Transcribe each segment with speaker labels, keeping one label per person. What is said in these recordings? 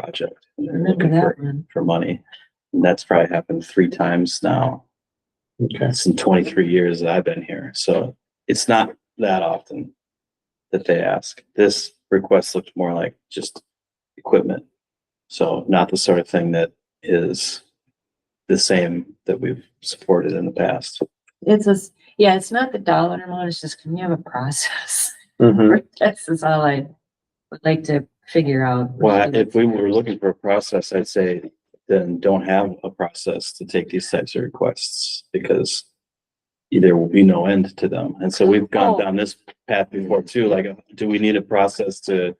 Speaker 1: project. and they're
Speaker 2: Remember
Speaker 1: looking for,
Speaker 2: that one?
Speaker 1: for money. And that's probably happened three times now.
Speaker 3: Okay.
Speaker 1: It's in twenty-three years that I've been here, so it's not that often that they ask. This request looked more like just equipment. So not the sort of thing that is the same that we've supported in the past.
Speaker 2: It's a, s- yeah, it's not the dollar amount, it's just, can you have a process?
Speaker 3: Mhm.
Speaker 2: This is all I would like to figure out.
Speaker 1: Well, if we were looking for a process, I'd say then don't have a process to take these types of requests because there will be no end to them. And so we've gone
Speaker 2: Oh.
Speaker 1: down this path before too, like, do we need a process to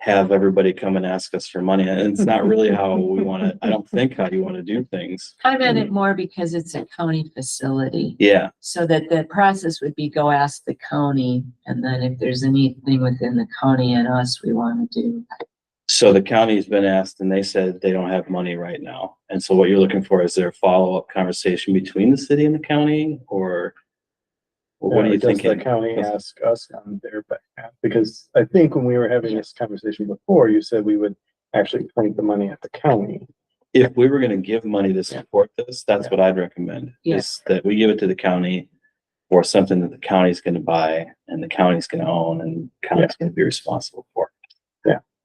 Speaker 1: have everybody come and ask us for money? And it's not really how we want to, I don't think how you want to do things.
Speaker 2: I meant it more because it's a county facility,
Speaker 1: Yeah,
Speaker 2: so that the process would be go ask the county, and then if there's anything within the county and us we wanna do.
Speaker 1: so the county's been asked and they said they don't have money right now. And so what you're looking for is there a follow-up conversation between the city and the county or what are you
Speaker 3: Does
Speaker 1: thinking?
Speaker 3: The county ask us on their behalf, because I think when we were having this conversation before, you said we would actually point the money at the county.
Speaker 1: if we were gonna give money to support this, that's
Speaker 3: Yeah.
Speaker 1: what I'd recommend.
Speaker 2: Yeah.
Speaker 1: Is that we give it to the county for something that the county's gonna buy and the county's gonna own and county's gonna be responsible for.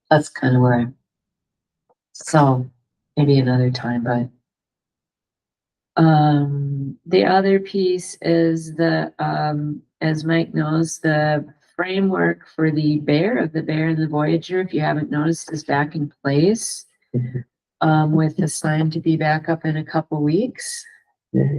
Speaker 2: That's kinda where I. So, maybe another time, but. Um, the other piece is the, um, as Mike knows, the framework for the Bear of the Bear and the Voyager, if you haven't noticed, is back in place.
Speaker 3: Mhm.
Speaker 2: Um, with the sign to be back up in a couple weeks,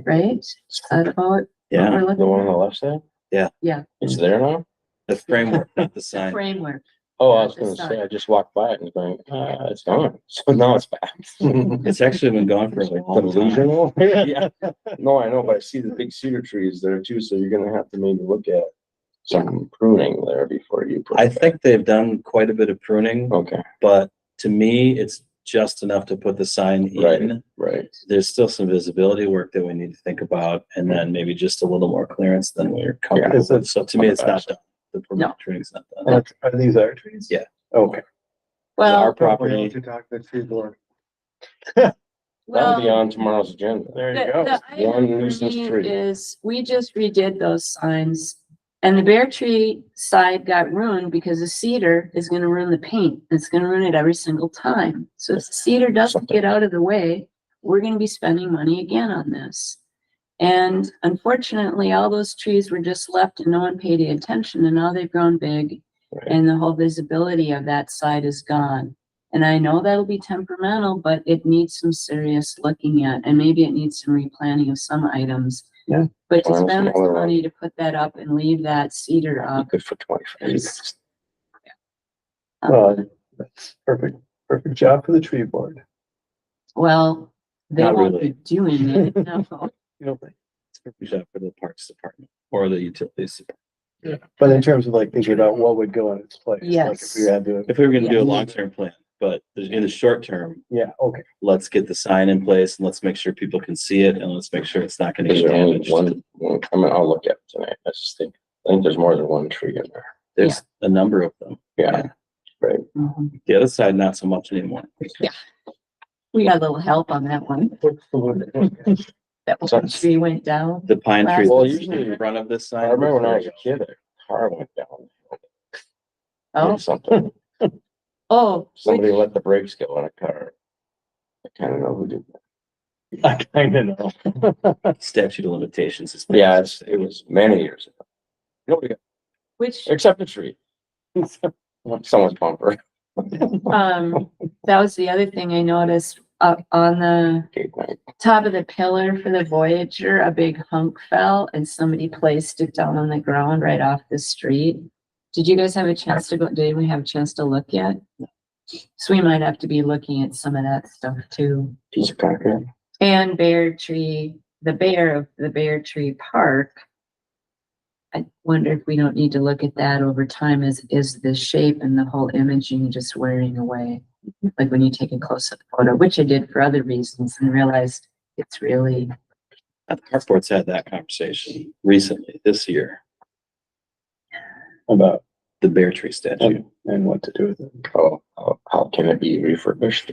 Speaker 2: right? Is that about? what
Speaker 1: Yeah,
Speaker 2: we're looking at?
Speaker 3: the left side?
Speaker 2: Yeah,
Speaker 3: It's there now?
Speaker 1: the framework, not the
Speaker 2: the
Speaker 1: sign.
Speaker 2: framework.
Speaker 3: Oh,
Speaker 2: I was gonna say,
Speaker 3: I just walked by it and going, ah, it's gone. So now it's back.
Speaker 1: It's actually been gone for a long time.
Speaker 3: Yeah. No, I know, but I see the big cedar trees there too, so you're gonna have to maybe look at some pruning there before you. put
Speaker 1: I
Speaker 3: it back.
Speaker 1: think they've done quite a bit of pruning,
Speaker 3: Okay,
Speaker 1: but to me, it's just enough to put the sign
Speaker 3: Right.
Speaker 1: in.
Speaker 3: right.
Speaker 1: There's still some visibility work that we need to think about and then maybe just a little more clearance than we're comfortable
Speaker 3: It's a-
Speaker 1: with. So to me, it's not done. The
Speaker 2: No.
Speaker 1: pruning's not done.
Speaker 3: Are these our trees?
Speaker 1: Yeah.
Speaker 3: Okay.
Speaker 1: Our
Speaker 2: Well,
Speaker 1: property.
Speaker 3: To talk to the tree board.
Speaker 2: well.
Speaker 3: tomorrow's agenda. There you
Speaker 2: The-
Speaker 3: go.
Speaker 2: the item
Speaker 3: One
Speaker 2: for
Speaker 3: useless
Speaker 2: me
Speaker 3: tree.
Speaker 2: Is, we just redid those signs and the bear tree side got ruined because the cedar is gonna ruin the paint. It's gonna ruin it every single time. So if the cedar doesn't
Speaker 3: Something.
Speaker 2: get out of the way, we're gonna be spending money again on this. And unfortunately, all those trees were just left and no one paid any attention and now they've grown big.
Speaker 3: Right.
Speaker 2: And the whole visibility of that side is gone. And I know that'll be temperamental, but it needs some serious looking at, and maybe it needs some replanning of some items.
Speaker 3: Yeah.
Speaker 2: But to
Speaker 3: Well, that's
Speaker 2: spend this
Speaker 3: another one.
Speaker 2: money to put that up and leave that cedar up.
Speaker 3: Good for twenty-five
Speaker 2: is-
Speaker 4: Well,
Speaker 2: um,
Speaker 4: that's perfect, perfect job for the tree board.
Speaker 2: Well, they
Speaker 1: Not
Speaker 2: won't
Speaker 1: really.
Speaker 2: be doing it, no.
Speaker 4: You know, but-
Speaker 1: Is that for the Parks Department or the Utilities? Department?
Speaker 4: but in terms of like thinking about what would go in its place. like
Speaker 2: Yes.
Speaker 4: If we had to,
Speaker 1: If we were gonna do a
Speaker 2: Yeah.
Speaker 1: long-term plan, but in the short term,
Speaker 4: yeah, okay,
Speaker 1: let's get the sign in place and let's make sure people can see it and let's make sure it's not gonna get damaged.
Speaker 3: one, one- I mean, I'll look at it tonight. I just think, I think there's more than one tree in there.
Speaker 1: There's a number of them.
Speaker 3: Yeah,
Speaker 2: Mhm.
Speaker 1: The other side, not so much anymore.
Speaker 2: We got a little help on that one. That one
Speaker 3: Sounds-
Speaker 2: tree went down.
Speaker 1: The pine tree
Speaker 3: Well,
Speaker 1: that's
Speaker 3: usually-
Speaker 1: in front of this sign.
Speaker 3: I remember when I was a kid, a car went down.
Speaker 2: Oh,
Speaker 3: or Something,
Speaker 2: oh, which-
Speaker 3: somebody let the brakes go on a car. I kind of know who did. that.
Speaker 4: I kinda know.
Speaker 1: Statute of limitations is.
Speaker 3: Yeah, it's, it was many years ago. Nobody, got-
Speaker 2: which,
Speaker 3: except the tree. Someone's bumper.
Speaker 2: um, that was the other thing I noticed up on the
Speaker 3: Gate night.
Speaker 2: top of the pillar for the Voyager, a big hunk fell and somebody placed it down on the ground right off the street. Did you guys have a chance to go, did we have a chance to look yet? So we might have to be looking at some of that stuff too.
Speaker 3: Piece of concrete.
Speaker 2: And Bear Tree, the bear of the Bear Tree Park. I wonder if we don't need to look at that over time is, is the shape and the whole imaging just wearing away? Like when you take a close-up photo, which I did for other reasons and realized it's really,
Speaker 1: Harcourt's had that conversation recently, this year.
Speaker 4: About
Speaker 5: the bear tree statue.
Speaker 1: and what to do with it.
Speaker 3: Oh, How, how, how can it be refurbished?